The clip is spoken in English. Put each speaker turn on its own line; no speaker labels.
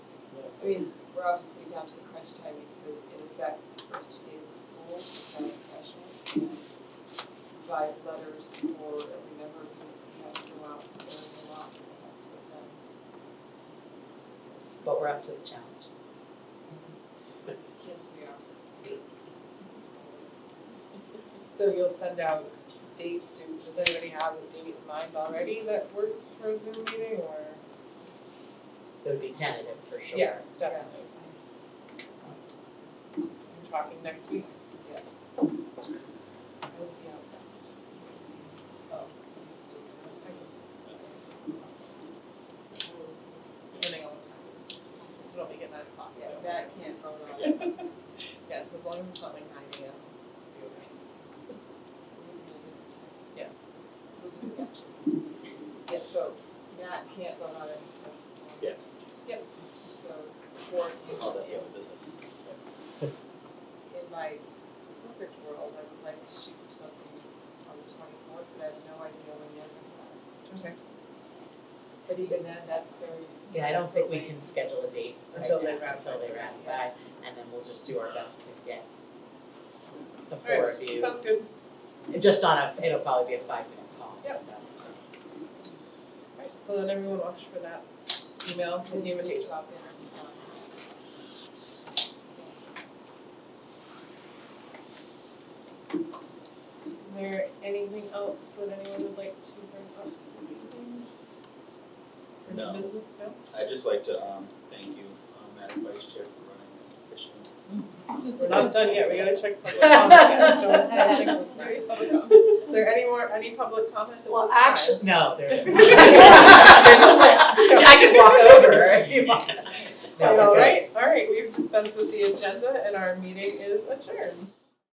I mean, we're obviously down to the crunch time because it affects the first two days of school, for county professionals, and revise letters for every member who has had to go out, so there's a lot that has to get done.
but we're up to the challenge.
Yes, we are.
So you'll send out date, do- does anybody have a date in mind already that works for a Zoom meeting or?
It would be tentative for sure.
Yes, definitely. We're talking next week.
Yes. I will be out next. Oh, you still.
Depending on what time it is. So it'll be at nine o'clock.
Yeah,
so-
that can't go wrong.
Yeah, as long as it's not like nine AM. it'll be okay. Yeah.
We'll do that. Yeah, so Matt can't vote on it because. um,
Yeah.
Yep.
So, for,
Oh, that's the only business.
in my perfect world, I would like to shoot for something on the twenty-fourth, but I have no idea when yet.
Okay.
But even then, that's very.
Yeah, I don't
that's
think
the
we can schedule a date right
Until they
now,
ratify.
until they ratify, and then we'll just do our best to get the
Alright,
four of you,
sounds good.
And just on a, it'll probably be a five minute call.
Yep. Alright, so then everyone watch for that email
way
and
we can
invitation.
Stop in and sign.
Is there anything else that anyone would like to bring up this evening? Or
No.
business, no?
I'd just like to um, thank you, um, Madam Vice Chair, for running an efficient.
We're not done yet, we gotta check public comment. Don't- don't check public comment. Is there any more, any public comment at this time?
Well, actually, no, there isn't. There's a list, I
I
can walk over if you want. No, we're
All
good.
right, all right, we've dispensed with the agenda and our meeting is adjourned.